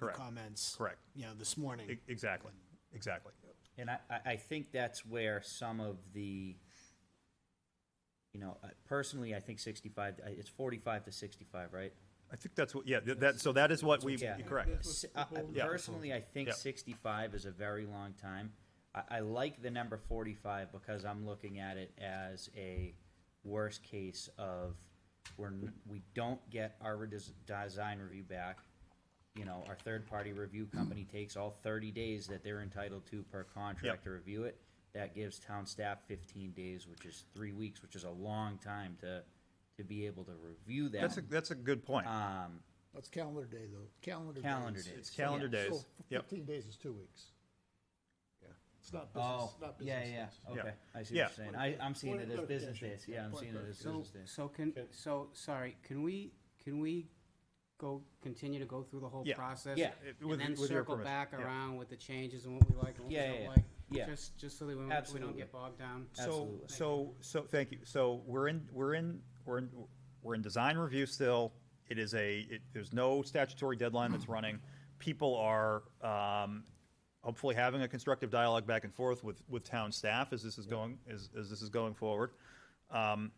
your Correct. comments. Correct. You know, this morning. E- Exactly, exactly. And I, I, I think that's where some of the, you know, uh, personally, I think sixty-five, I- it's forty-five to sixty-five, right? I think that's what, yeah, th- that, so that is what we, Yeah. you're correct. S- I- I- Yeah. Personally, I think Yeah. sixty-five is a very long time. I, I like the number forty-five because I'm looking at it as a worst case of we're, n- we don't get our redes- design review back. You know, our third-party review company takes all thirty days that they're entitled to per contract to review it. That gives town staff fifteen days, which is three weeks, which is a long time to, to be able to review that. That's a, that's a good point. Um, That's calendar day, though. Calendar days. Calendar days. It's calendar yeah. days, So yep. fifteen days is two weeks. Yeah. It's not business, Oh, not business. yeah, yeah, days. yeah, okay, Yeah. I see what Yeah. you're saying, I, I'm seeing Point it of as business clarification. days, yeah, I'm Point seeing of it as So, business days. so can, so, sorry, can we, can we go, continue to go through the whole Yeah. process? Yeah. It- with- And then with your circle permission, back yeah. around with the changes and what we like and what we Yeah, yeah, don't yeah. like? Yeah. Just, just so that we don't- we Absolutely. don't get bogged down. So, Absolutely. so, so, thank you. So we're in, we're in, we're in, we're in design review still. It is a, it, there's no statutory deadline that's running. People are, um, hopefully having a constructive dialogue back and forth with, with town staff as this is going, as, as this is going forward. Um,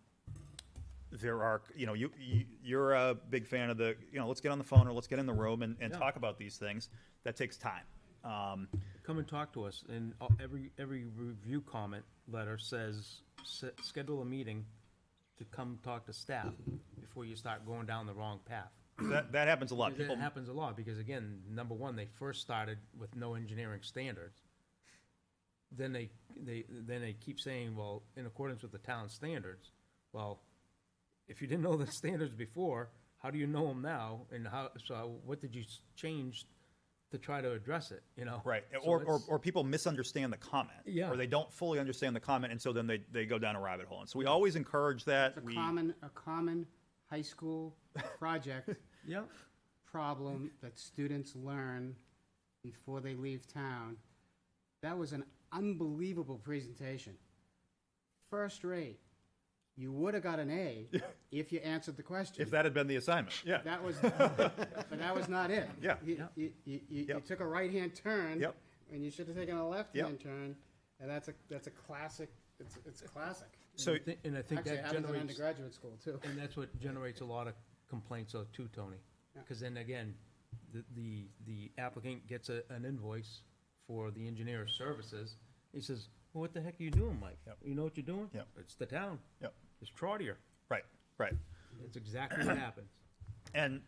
there are, you know, you, you, you're a big fan of the, you know, let's get on the phone or let's get in the room and, and talk about these things. That takes time. Um, Come and talk to us, and uh, every, every review comment letter says, "S- schedule a meeting to come talk to staff before you start going down the wrong path. that, that happens a lot. Because People That happens a lot, because again, number one, they first started with no engineering standards. Then they, they, then they keep saying, well, in accordance with the town standards. Well, if you didn't know the standards before, how do you know them now? And how, so what did you s- change to try to address it, you know? Right, So or, or, it's- or people misunderstand the comment. Yeah. Or they don't fully understand the comment, and so then they, they go down a rabbit hole. And so we always encourage that. It's a We, common, a common high school project Yeah. problem that students learn before they leave town. That was an unbelievable presentation. First rate. You would have got an A if you answered the question. if that had been the assignment, yeah. That was, uh, but that was not it. Yeah. You, you, you, you you Yep. took a right-hand turn. Yep. And you should have taken a left-hand turn, and that's a, that's a classic, it's, it's classic. So, I thi- And I think Actually, it that happens in generates, undergraduate school, too. and that's what generates a lot of complaints though too, Tony. Because then again, the, the, the applicant gets a, an invoice for the engineer's services. He says, well, what the heck are you doing, Mike? Yep. You know what you're doing? Yep. It's the town. Yep. It's Trotter. right, right. That's exactly what happens. And,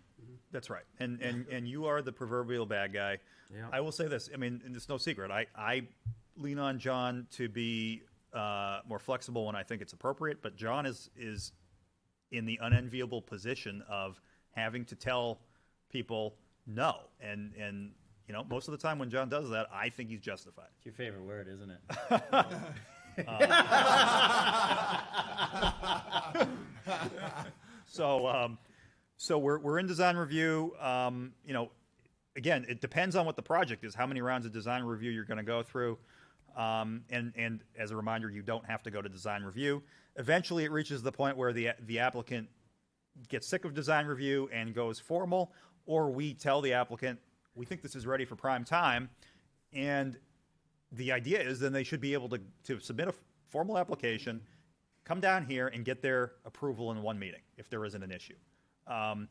that's right. And, and, and you are the proverbial bad guy. Yeah. I will say this, I mean, and it's no secret, I, I lean on John to be, uh, more flexible when I think it's appropriate, but John is, is in the unenviable position of having to tell people no. And, and, you know, most of the time when John does that, I think he's justified. It's your favorite word, isn't it? So, um, so we're, we're in design review. Um, you know, again, it depends on what the project is, how many rounds of design review you're going to go through. Um, and, and as a reminder, you don't have to go to design review. Eventually, it reaches the point where the, the applicant gets sick of design review and goes formal, or we tell the applicant, we think this is ready for prime time. And the idea is then they should be able to, to submit a f- formal application, come down here and get their approval in one meeting if there isn't an issue. Um,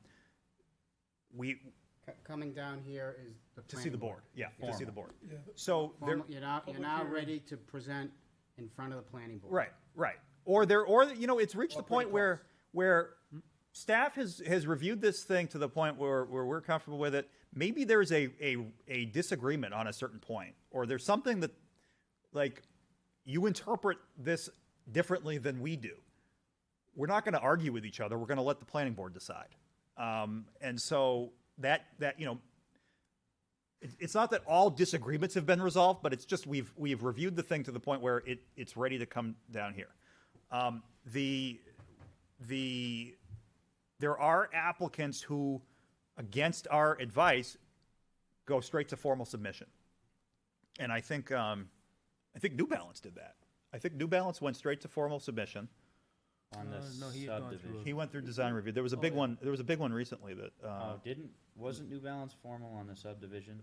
we, C- Coming down here is the to see the planning board, yeah, to see the board. So there, Formal- You're now, you're now ready to present in front of the planning board. right, right. Or there, or, you know, it's reached the point where, where staff has, has reviewed this thing to the point where, where we're comfortable with it. Maybe there's a, a, a disagreement on a certain point, or there's something that, like, you interpret this differently than we do. we're not going to argue with each other. We're going to let the planning board decide. Um, and so that that you know, it, it's not that all disagreements have been resolved, but it's just we've we've reviewed the thing to the point where it it's ready to come down here. Um, the the there are applicants who, against our advice, go straight to formal submission. And I think um, I think New Balance did that. I think New Balance went straight to formal submission on the Uh, no, he had gone through subdivision. He went through design review. There was a big one. There was a big one recently that. Uh, Oh, didn't, wasn't New Balance formal on the subdivision?